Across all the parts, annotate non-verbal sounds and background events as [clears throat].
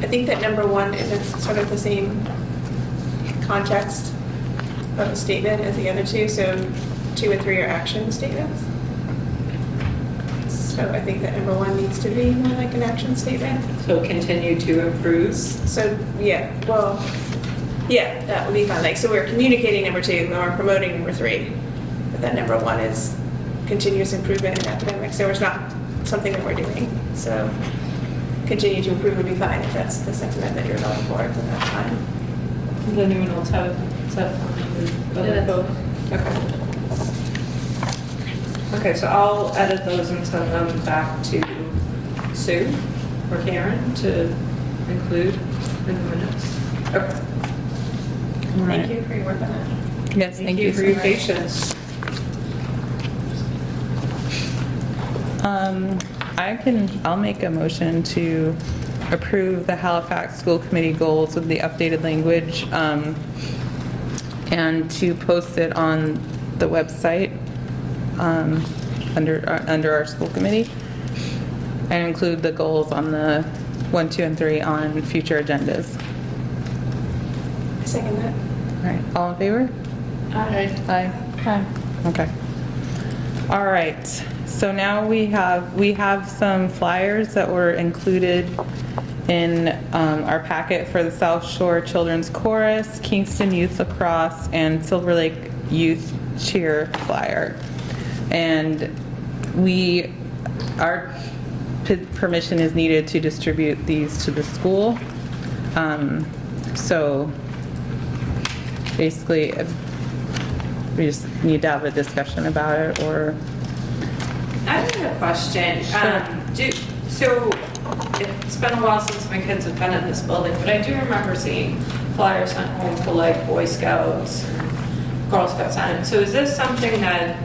I think that number one is in sort of the same context of a statement as the other two, so two and three are action statements. So I think that number one needs to be more like an action statement. So continue to improve. So, yeah, well, yeah, that would be fine. Like, so we're communicating number two, and we're promoting number three. But then number one is continuous improvement in academics, so it's not something that we're doing. So continue to improve would be fine. If that's the sentiment that you're going for, then that's fine. Does anyone else have, is that fine with other Yeah, folks? Okay. Okay, so I'll edit those and send them back to Sue or Karen to include in the minutes. Okay. Thank you for your work on that. Yes, thank you. for your patience. Um, I can, I'll make a motion to approve the Halifax School Committee goals with the updated language um, and to post it on the website um, under, uh, under our school committee and include the goals on the one, two, and three on future agendas. I Second that. All right, all in favor? Aye. Aye. Okay. All right, so now we have, we have some flyers that were included in um, our packet for the South Shore Children's Chorus, Kingston Youth Lacrosse, and Silver Lake Youth Cheer flyer. And we, our p- permission is needed to distribute these to the school. Um, So basically, if- we just need to have a discussion about it, or, I have a question. Um, do, so it's been a while since my kids have been in this building, but I do remember seeing flyers sent home for like Boy Scouts, and Girl Scouts on it. So is this something that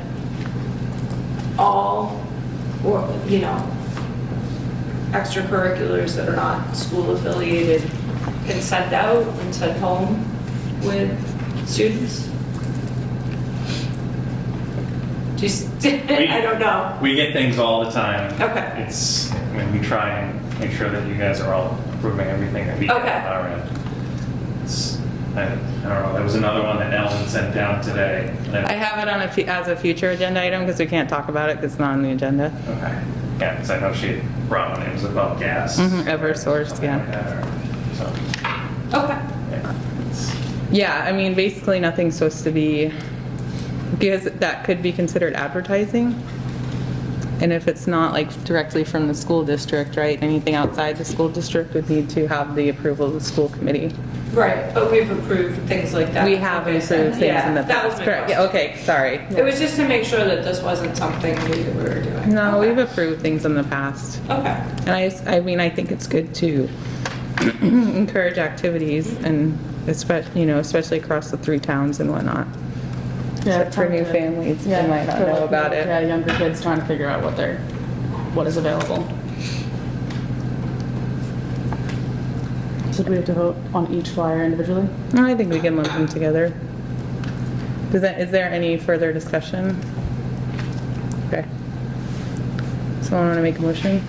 all, or, you know, extracurriculars that are not school affiliated can send out and send home with students? [laughs] Just, I don't know. We get things all the time. Okay. It's, I mean, we try and make sure that you guys are all approving everything that we have Okay. on our end. It's, I, I don't know, there was another one that Ellen sent down today. and I have it on a, fu- as a future agenda item, because we can't talk about it, because it's not on the agenda. Okay, yeah, because I know she brought one, it was about gas. Mhm, Eversource, Something yeah. like that, or- So, Okay. yeah, it's- Yeah, I mean, basically, nothing's supposed to be, because that could be considered advertising, and if it's not, like, directly from the school district, right, anything outside the school district would need to have the approval of the school committee. Right, but we've approved things like that. We have Okay, approved things yeah, in the That was past, my correct, yeah, question. okay, sorry. It was just to make sure that this wasn't something new that we were doing. No, Okay. we've approved things in the past. Okay, And I, s- I mean, I think it's good to [clears throat] encourage activities and especially, you know, especially across the three towns and whatnot. Except for new families, they might not for, know like, about Yeah, it. younger kids trying to figure out what they're, what is available. So do we have to vote on each flyer individually? No, I think we can lump them together. Does that, is there any further discussion? Okay. Someone want to make a motion?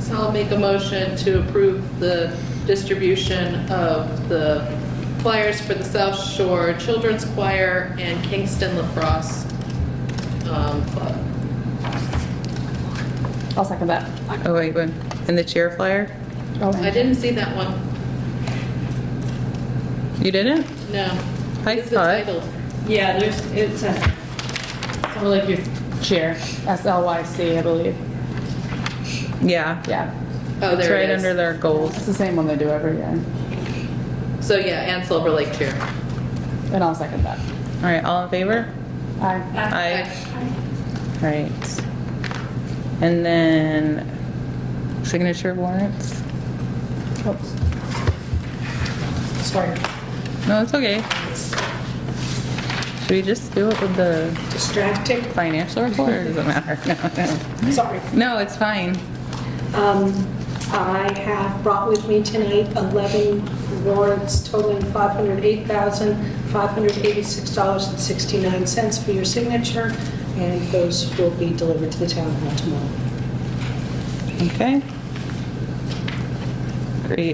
So I'll make a motion to approve the distribution of the flyers for the South Shore Children's Choir and Kingston Lacrosse um, Club. I'll second that. Oh, wait, wait. And the cheer flyer? I didn't see that one, You didn't? no. I What is the saw it. title? yeah, there's, it's a, So we're like your chair, S-L-Y-C, I believe. Yeah. Yeah, Oh, It's there right it under is. their goals. it's the same one they do every year. So yeah, and Silver Lake Cheer. And I'll second that. All right, all in favor? Aye. Aye. Right. And then signature warrants? Oops. No, it's okay. Should we just do it with the distracting. financial report or does it matter? [laughs] Sorry. No, it's fine. Um, I have brought with me tonight 11 warrants totaling $508,586.69 for your signature, and those will be delivered to the town hall tomorrow. Okay.